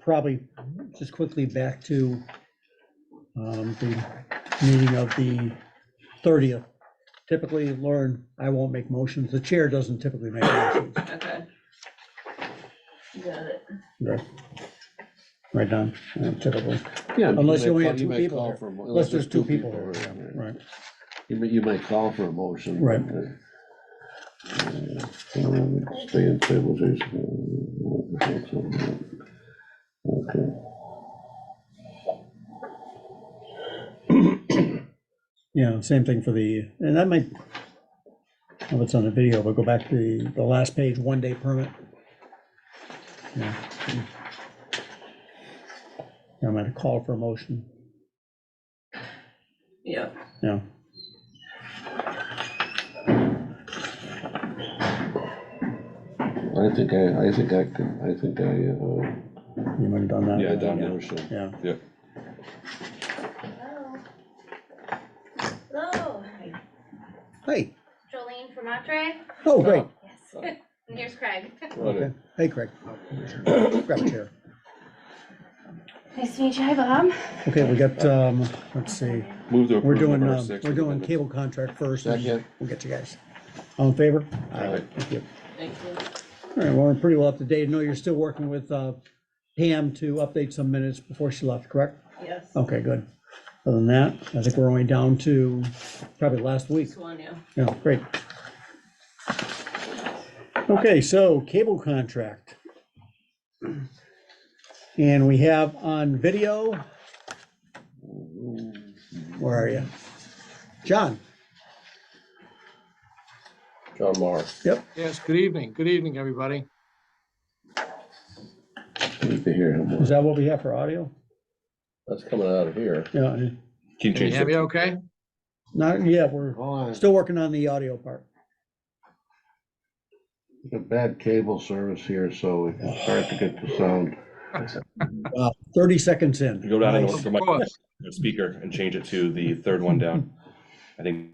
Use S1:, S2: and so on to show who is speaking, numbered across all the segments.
S1: probably just quickly back to um, the meeting of the 30th. Typically, Lauren, I won't make motions. The chair doesn't typically make motions.
S2: Okay. Got it.
S1: Right, Don? Uh, Typically.
S3: Yeah, I mean,
S1: Unless
S3: might
S1: you only
S3: call-
S1: have two
S3: might
S1: people
S3: call
S1: there.
S3: for a mo-
S1: Unless there's two people
S3: here,
S1: there,
S3: yeah, right.
S1: Right.
S3: You might, you might call for a motion.
S1: Right.
S3: Uh, uh, Stay in stabilization. uh, Okay.
S1: Yeah, same thing for the, and that might, oh, it's on the video, but go back to the, the last page, one day permit. Yeah. I'm gonna call for a motion,
S2: Yeah,
S1: yeah.
S3: I think I, I think I can, I think I, uh,
S1: You might have done that.
S4: Yeah, Don Rochelle.
S1: Yeah,
S4: Yep.
S5: Hello,
S1: hey,
S5: Jolene from Monterey.
S1: oh, great,
S5: Yes. And here's Craig.
S1: okay,
S4: uh,
S1: hey, Craig. Grab a chair.
S5: Nice to meet you. Hi, Bob.
S1: Okay, we got, um, let's see,
S4: Move to
S1: we're
S4: approve
S1: doing,
S4: number
S1: um,
S4: six.
S1: we're doing cable contract first, and
S3: Second.
S1: we'll get you guys. All in favor?
S3: Aye.
S1: Thank you.
S2: thank you.
S1: All right, well, we're pretty well up to date. I know you're still working with uh, Pam to update some minutes before she left, correct?
S2: Yes,
S1: Okay, good. Other than that, I think we're only down to probably last week.
S2: this one, yeah.
S1: Yeah, great. Okay, so cable contract. And we have on video. Where are you? John?
S3: John Marr.
S1: Yep.
S6: Yes, good evening. Good evening, everybody.
S3: Need to hear him.
S1: Is that what we have for audio?
S3: That's coming out of here.
S1: Yeah,
S4: Can you
S6: Can you
S4: change
S6: hear me
S4: it?
S6: okay?
S1: not, yeah, we're
S3: Oh,
S1: still working on the audio part.
S3: I got bad cable service here, so it's hard to get the sound.
S1: Uh, 30 seconds in.
S4: Go down and
S1: Nice.
S4: look for
S6: Of
S4: my
S6: course.
S4: your speaker and change it to the third one down. I think.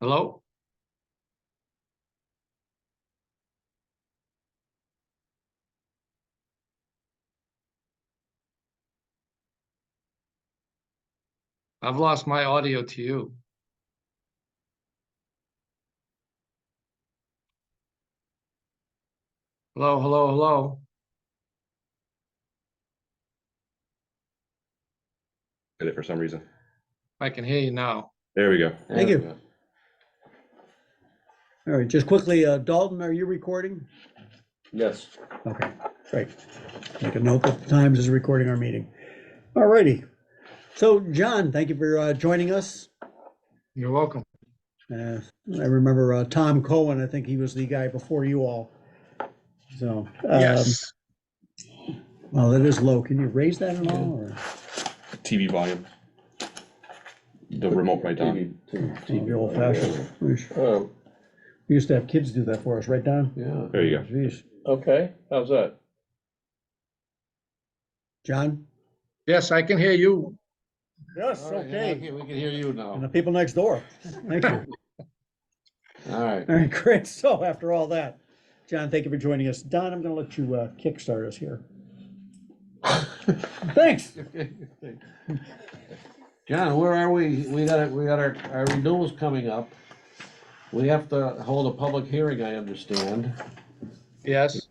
S6: Hello? I've lost my audio to you. Hello, hello, hello.
S4: Did it for some reason.
S6: I can hear you now.
S4: There we go.
S1: Thank you. All right, just quickly, uh, Dalton, are you recording?
S3: Yes.
S1: Okay, great. Make a note that Times is recording our meeting. All righty. So, John, thank you for uh, joining us.
S6: You're welcome.
S1: Uh, I remember uh, Tom Cohen, I think he was the guy before you all. So. um,
S6: Yes.
S1: Well, that is low. Can you raise that at all? or-
S4: TV volume. The remote right down.
S1: TV old fashioned. We sh-
S3: Oh,
S1: we used to have kids do that for us, right, Don?
S3: yeah.
S4: There you go.
S1: Jeez.
S3: Okay, how's that?
S1: John?
S6: Yes, I can hear you.
S1: Yes,
S3: All right, We can hear you
S1: And
S3: now.
S1: the people next door. Thank you.
S3: All right.
S1: All right, great. So after all that, John, thank you for joining us. Don, I'm going to let you uh, kickstart us here. Thanks.
S3: John, where are we? We got, it. we got our, our renewals coming up. We have to hold a public hearing, I understand.
S6: Yes?